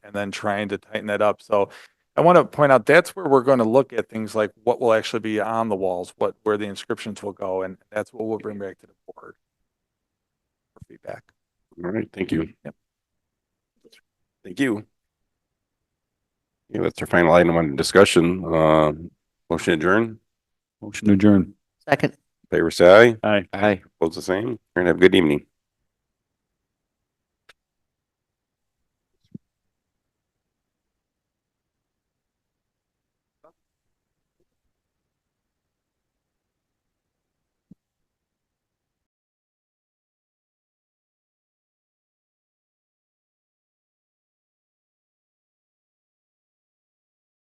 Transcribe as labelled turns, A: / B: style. A: and then trying to tighten that up. So I want to point out, that's where we're going to look at things like what will actually be on the walls, what, where the inscriptions will go, and that's what we'll bring back to the board for feedback.
B: All right, thank you.
A: Yep.
B: Thank you. Yeah, that's our final item on discussion. Um, motion adjourn.
C: Motion to adjourn.
D: Second.
B: Favor say aye.
C: Aye.
B: Aye. Opposed the same. And have a good evening.